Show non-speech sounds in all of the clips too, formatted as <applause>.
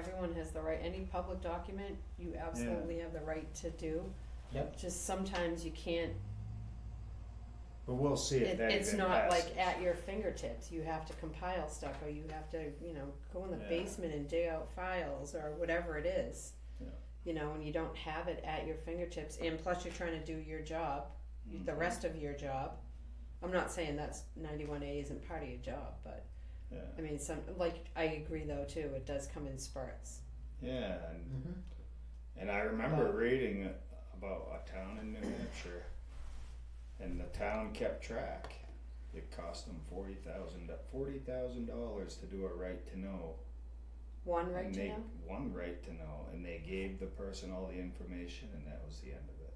town has the right, any public document, you absolutely have the right to do. Yep. Just sometimes you can't, But we'll see if it, that it's even not passes. like at your fingertips, you have to compile stuff, or you have to, you know, go in the Yeah. basement and dig out files, or whatever it is. Yeah. You know, and you don't have it at your fingertips, and plus you're trying to do your job, the Mhm. rest of your job. I'm not saying that's ninety-one A isn't part of your job, but, Yeah, I mean, some, like, I agree though too, it does come in spurts. yeah, and, Mm-hmm. and I remember But- reading about a town in New Hampshire, and the town kept track. It cost them forty thousand forty thousand dollars to do a right to know. One right and to they, know? One right to know, and they gave the person all the information, and that was the end of it.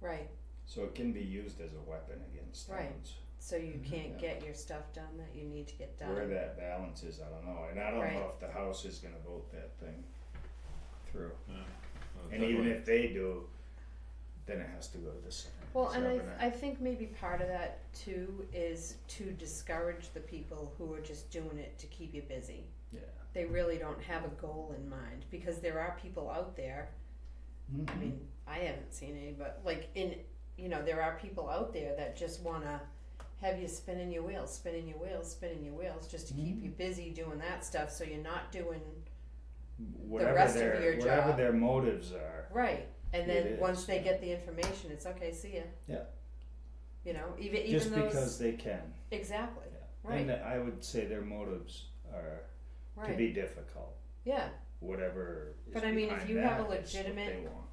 Right, So it can be used as a weapon against Right. towns. so you Mhm. can't Yeah. get your stuff done that you need to get done. Where that balance is, I don't know, and I don't Right. know if the House is gonna vote that thing through. Yeah. Oh, And even if they do, then it has to go to the Senate. Well, and I, It's not I think maybe part of that too is to discourage the people who are just doing it to keep you busy. gonna- They really don't have a goal in mind because there are people out there. I Yeah. mean, I haven't seen any, but like in, you know, there are people out there that just wanna have you spinning your wheels, spinning your wheels, spinning your wheels, just to keep Mhm. you busy doing that stuff, so you're not doing Whatever rest of their, your whatever job. their motives are, Right, and It then is, once they yeah. get the information, it's okay, see ya. Yeah. You know, even just even because those, they can, exactly, yeah. Right. And I would say their motives are to right, be difficult, yeah, whatever is But I mean, if behind you have a that is what they legitimate- want.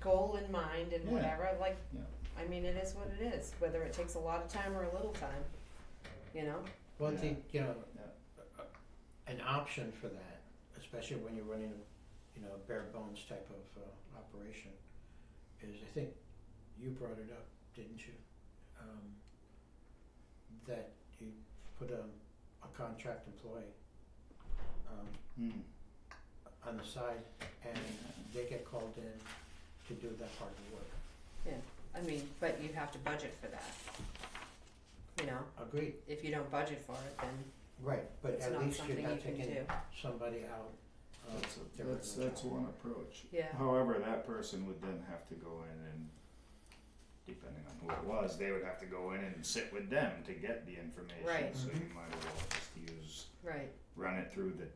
goal in mind and Yeah. whatever, like, Yeah. I mean, it is what it is, whether it takes a lot of time or a little time, you know, One Yeah. thing, you know, an option for that, especially when you're running, you know, a bare bones type of uh, operation, is I think you brought it up, didn't you? Um, that you put a, a contract employee um, Mm. on the side and they get called in to do that part of the work. I mean, but you have to budget for that. You know, Agreed, if you don't budget for it, then right, but it's at not least you're something you not can do, taking somebody out of That's, a- their that's, original that's job. one approach. yeah, However, that person would then have to go in and, depending on who it was, they would have to go in and sit with them to get the information, Right. so you might as well just use right, run it through the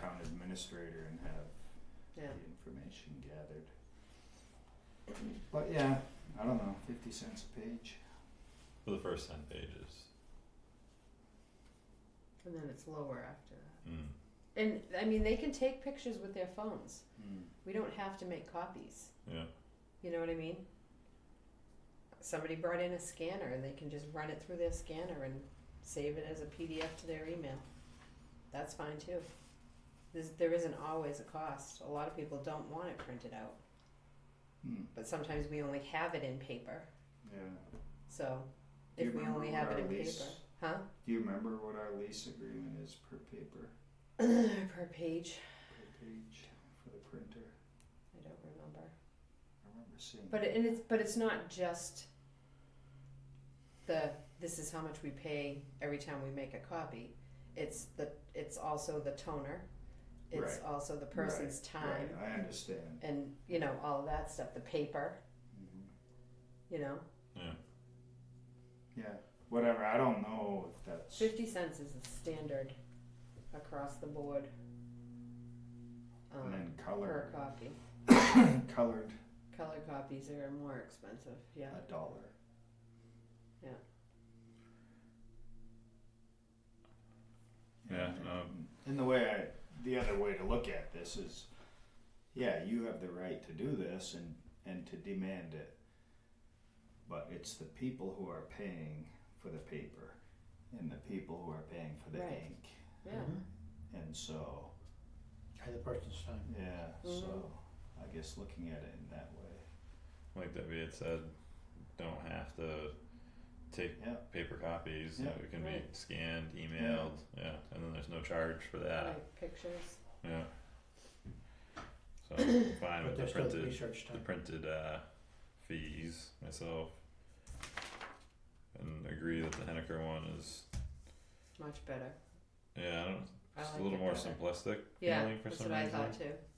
town administrator and have yeah, the information gathered. But yeah, I don't know, fifty cents a page. For the first ten pages. and then it's lower after that. Mm. And, I mean, they can take pictures with their phones, Mm. we don't have to make copies. Yeah. You know what I mean? Somebody brought in a scanner and they can just run it through their scanner and save it as a PDF to their email. That's fine too. There's, there isn't always a cost. A lot of people don't want it printed out, Mm. but sometimes we only have it in paper. Yeah. So Do you if we remember only what have our it in lease- paper, <clears throat> huh? Do you remember what our lease agreement is per paper, per page, per page for the printer? I don't remember. I remember seeing. But that. it, and it's but it's not just the this is how much we pay every time we make a copy. It's the it's also the toner. It's Right. also the person's time Right, I understand. and you know all of that stuff. The paper, Mhm. you know, Yeah, whatever, I don't know if that's, fifty cents is the standard across the board. and Um, then per color, <laughs> copy, colored color copies are more expensive. Yeah, Uh, a dollar. Yeah. Yeah, And- um, And the way I, the other way to look at this is, yeah, you have the right to do this and, and to demand it. But it's the people who are paying for the paper and the people who are paying for the Right. ink. yeah. Mm-hmm. Mhm. And so, And the person's time. yeah, so Mhm. I guess looking at it in that way, Like Debbie had said, don't have to take yeah. paper copies. Yeah. It can be Right. scanned, emailed. Yeah. and then there's no charge for that. Like pictures. Yeah. So I'm fine But with the there's still the printed, research the time. printed uh, fees myself, and agree that the Henniker one is Much better. yeah. I don't I It's like a little it more better. simplistic Yeah, feeling for that's some what I reason. thought too.